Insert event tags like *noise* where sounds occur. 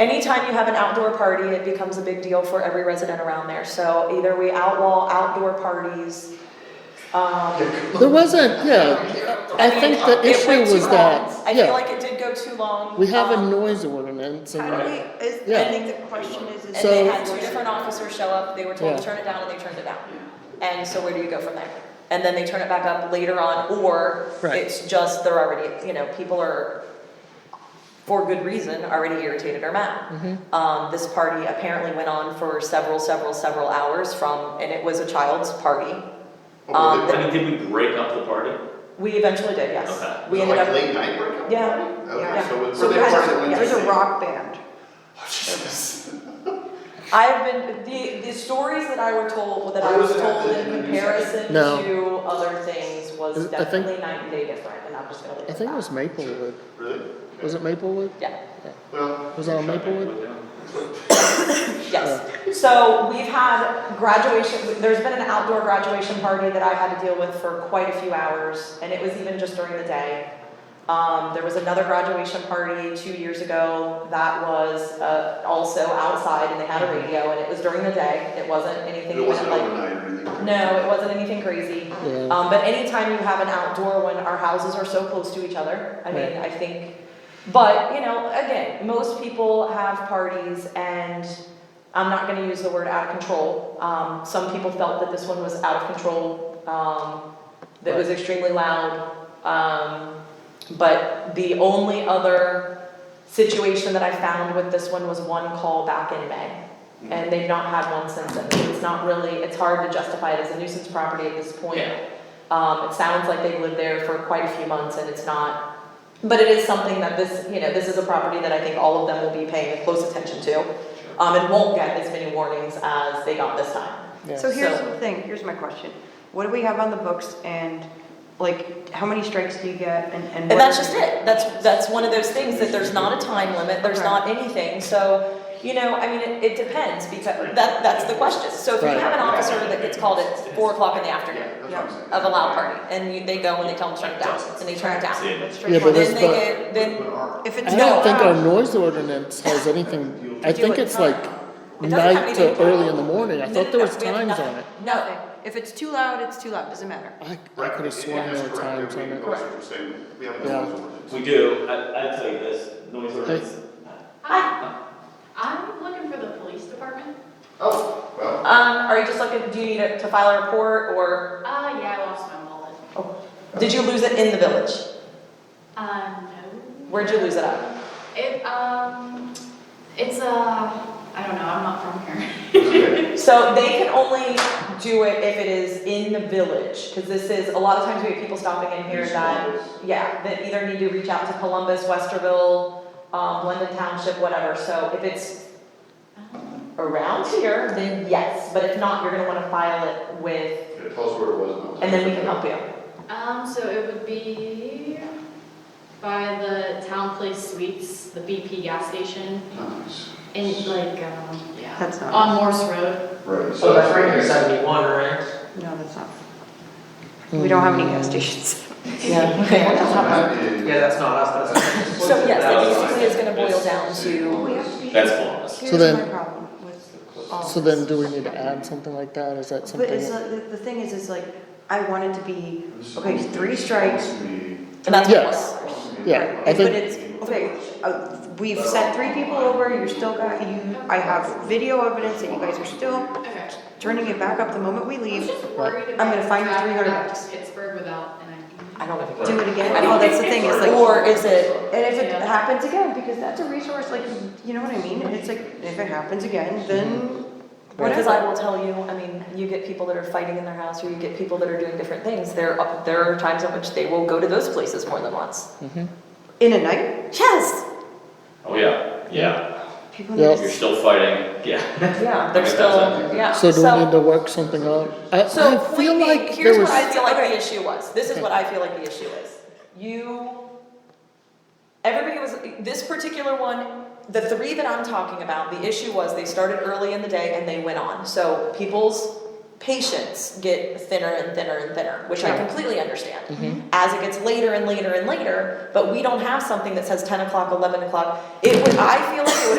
anytime you have an outdoor party, it becomes a big deal for every resident around there. So either we outlaw outdoor parties, um, There wasn't, yeah, I think the it went issue too was long. that, I feel yeah, like it did go too long. we have a Um, noise ordinance How do and, we, is, Yeah. I think the question is, is. And they So- had two different officers show up, they were told to Yeah. turn it down and they turned it down. And so where do you go from there? And then they turn it back up later on, or Right. it's just they're already, you know, people are, for good reason, already irritated or mad. Mm-hmm. Um, this party apparently went on for several, several, several hours from, and it was a child's party. Um, I mean, did we break up the party? We eventually did, yes. Okay. We ended Like up, late night workout? Yeah. Okay, Yeah. so it's. So so they there's, weren't a- doing there's a anything. rock band. Oh, Jesus. *laughs* I've been, the, the stories that I were told, that I Where was was it at? told The- the in news comparison No. to other things was I think- definitely night and day different, and I'm just gonna leave it I at think it that. was Maplewood, Really? was it Maplewood? Yeah, Well. Was it on Maplewood? yes. So we've had graduation, there's been an outdoor graduation party that I had to deal with for quite a few hours, and it was even just during the day. Um, there was another graduation party two years ago that was, uh, also outside, and they had a radio, and it was during the day, it wasn't anything Mm-hmm. It even wasn't like. overnight or anything. No, it wasn't anything crazy. Yeah, Um, but anytime you have an outdoor when our houses are so close to each other, I mean, Right. I think, but, you know, again, most people have parties and I'm not gonna use the word out of control. Um, some people felt that this one was out of control, um, that was extremely loud. Um, but the only other situation that I found with this one was one call back in May. And they've not had one since then. It's not really, it's hard to justify it as a nuisance property at this point. Yeah. Um, it sounds like they've lived there for quite a few months and it's not, but it is something that this, you know, this is a property that I think all of them will be paying close attention to. Um, and won't get as many warnings as they got this time. So yeah, here's So- the thing, here's my question. What do we have on the books and like, how many strikes do you get and, and? And what that's are- just it, that's, that's one of those things that there's not a time limit, there's Okay. not anything, so, you know, I mean, it, it depends, because that, that's the question. So if you Right. have an officer that gets called at four o'clock in the afternoon Yeah, that's what I'm of saying. a loud party, and you, they go and they tell them to turn it down, and they turn it down. Yeah, that's- strike Yeah, but one. this- Then they get, then, But our- If it's I not. don't think our loud- noise ordinance has anything, I think it's like It doesn't have night to anything. early in the morning, No, I no, thought there no, was *laughs* we have times nothing. on it. no, If it's too loud, it's too loud, doesn't matter. I, I Right, could have it- it sworn has there were corrected. times on We- it. that's what we're saying. We have a Yeah. noise ordinance. We do, I, I'd tell you this, noise ordinance, Hi. I'm looking for the police department. Oh, well, Um, are you just looking, do you need it to file a report, or Ah, yeah, I lost my wallet. did you lose it in the village? Uh, no. Where'd you lose it at? It, um, it's, uh, I don't know, I'm not from here. okay. So they can only do it if it is in the village, cause this is, a lot of times we have people stopping in here These that, ones. yeah, that either need to reach out to Columbus, Westerville, um, London Township, whatever, so if it's around here, then yes, but if not, you're gonna wanna file it with, Okay, Tell us where it was. and I'll- and then we can help you. *laughs* Um, so it would be by the Town Place Suites, the BP gas station, Nice. in like, um, yeah, That's not, on Morse Road. So Right, so that's right here, that's. seventy-one, right? no, that's not. Hmm. We don't have any gas *laughs* stations. Yeah. Okay. That is- Yeah, that's not us, that's. *laughs* So yes, that it was basically is gonna boil down to, that's flawless. Here's then- my problem with all So this. then, do we need to add something like that, is that But it's, something? like- the, the thing is, is like, I wanted to be, okay, three strikes. and that's what it was. Yes. Yeah, I But think, it's, okay, uh, we've sent three people over, you're still got, you, I have video evidence that you guys are still Okay. turning it back up the moment we I was leave. just worried I'm gonna about find you driving 300 back bucks. to Pittsburgh without, and I. I don't know. Do it again, I oh, don't that's the thing, it's like. Or is it, And if it happens again, because that's a resource, like, you know what I mean? And it's like, if it happens again, then because I whatever. will tell you, I mean, you get people that are fighting in their house, or you get people that are doing different things, there, are- there are times in which they will go to those places more than once. In a night, Yes, Oh, yeah, yeah, people Yeah. need to. you're still fighting, yeah. yeah, they're Okay, still, that's yeah, so. so do we need to work something out? I, So, I feel point being, like here's there what I was, feel like the issue was, this is what I feel like the issue is, you, everybody was, this particular one, the three that I'm talking about, the issue was they started early in the day and they went on, so people's patience get thinner and thinner and thinner, which I Sure. completely understand. Mhm. as it gets later and later and later, but we don't have something that says ten o'clock, eleven o'clock. It would, I feel like it would